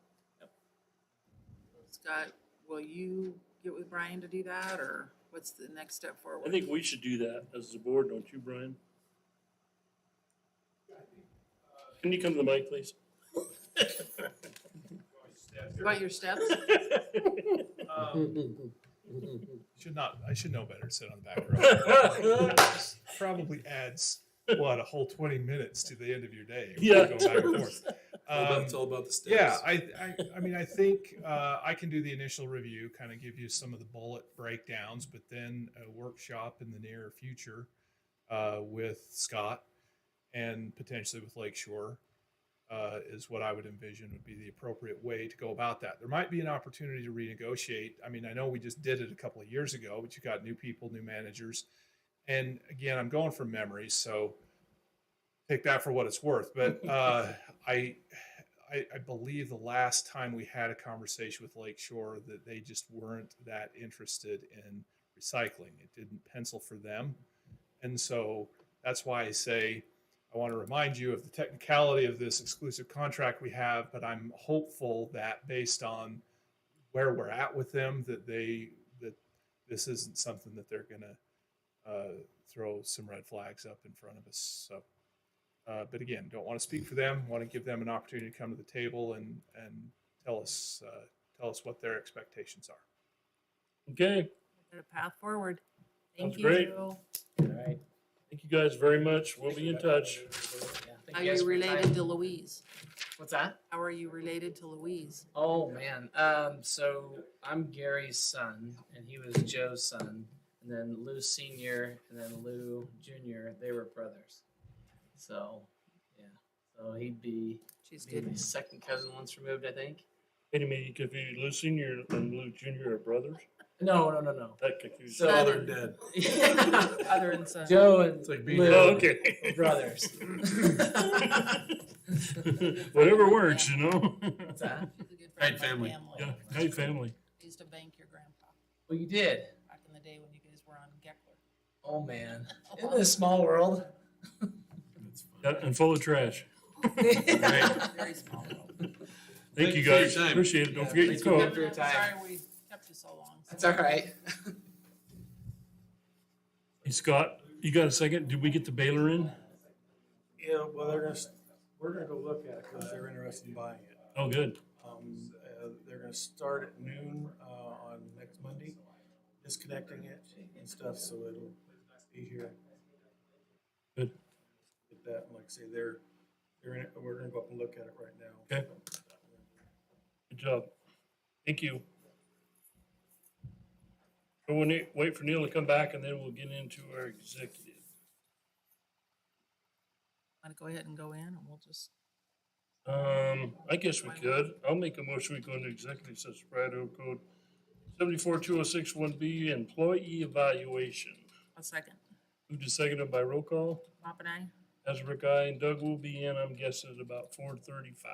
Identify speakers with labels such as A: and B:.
A: Scott, will you get with Brian to do that, or what's the next step forward?
B: I think we should do that as the board, don't you, Brian? Can you come to the mic, please?
A: About your steps?
C: Oh,
D: Should not, I should know better, sit on the back row. Probably adds, what, a whole twenty minutes to the end of your day. if you
B: Yeah.
D: go back and forth.
C: All about-
D: Um,
C: It's all about the steps.
D: Yeah, I, I, I mean, I think uh, I can do the initial review, kind of give you some of the bullet breakdowns, but then a workshop in the near future uh, with Scott and potentially with Lakeshore uh, is what I would envision would be the appropriate way to go about that. There might be an opportunity to renegotiate. I mean, I know we just did it a couple of years ago, but you got new people, new managers, and again, I'm going from memory, so take that for what it's worth. But uh, I. I, I believe the last time we had a conversation with Lakeshore that they just weren't that interested in recycling. It didn't pencil for them. And so that's why I say I want to remind you of the technicality of this exclusive contract we have, but I'm hopeful that based on where we're at with them, that they that this isn't something that they're gonna uh, throw some red flags up in front of us. So uh, but again, don't want to speak for them. Want to give them an opportunity to come to the table and and tell us uh, tell us what their expectations are.
B: Okay,
A: There's a path forward. Thank
B: Sounds great.
A: you.
E: Right.
B: thank you guys very much. We'll be in touch.
E: Yeah, thank
A: How are
E: guys
A: you
E: for your time.
A: related to Louise?
E: What's that?
A: How are you related to Louise?
E: Oh man. Um, so I'm Gary's son, and he was Joe's son, and then Lou Senior, and then Lou Junior. They were brothers. So, yeah. So he'd be
A: She's
E: be my
A: good.
E: second cousin once removed, I think.
B: Any me, you confused Lou Senior and Lou Junior are brothers?
E: No, no, no, no.
B: That confuses.
E: So-
C: Oh, they're dead.
A: Other and son.
E: Joe and
C: It's like being.
E: Lou
C: dead.
B: Oh,
E: were
B: okay.
E: brothers.
B: Whatever works, you know?
E: What's that?
A: She's a good friend
C: Great
A: of my
C: family.
B: Yeah, hey, family.
A: I used to bank your grandpa
E: Well, you did.
A: back in the day when you guys were on Geckler.
E: Oh man, isn't it a small world?
C: That's fine.
B: Yeah, And full of trash.
A: Very small world.
B: Thank
C: Thank
B: you
C: you for your
B: guys.
C: time.
B: Appreciate it. Don't
E: Yeah,
B: forget your
E: thanks for
B: coat.
E: coming.
A: I'm
E: your time.
A: sorry we kept you so long. so-
E: That's all right.
B: Hey, Scott, you got a second? Did we get the baler in?
F: Yeah, well, they're gonna, s- we're gonna go look at it because they're interested in buying it.
B: Oh, good.
F: Um, uh, they're gonna start at noon, uh, on next Monday, disconnecting it and stuff, so it'll be here.
B: Good.
F: Get that, and like I say, they're, they're in, it- we're gonna go up and look at it right now.
B: Okay. Good job. Thank you. So we'll ne- wait for Neil to come back and then we'll get into our executive.
A: Want to go ahead and go in and we'll just,
B: Um, I guess we could. I'll make a motion. We go into executive session, Colorado Code seventy-four two oh six one B, employee evaluation.
A: a second.
B: Moved and seconded by roll call.
A: Pop and I?
B: Ezra Guy and Doug will be in, I'm guessing, at about four thirty-five.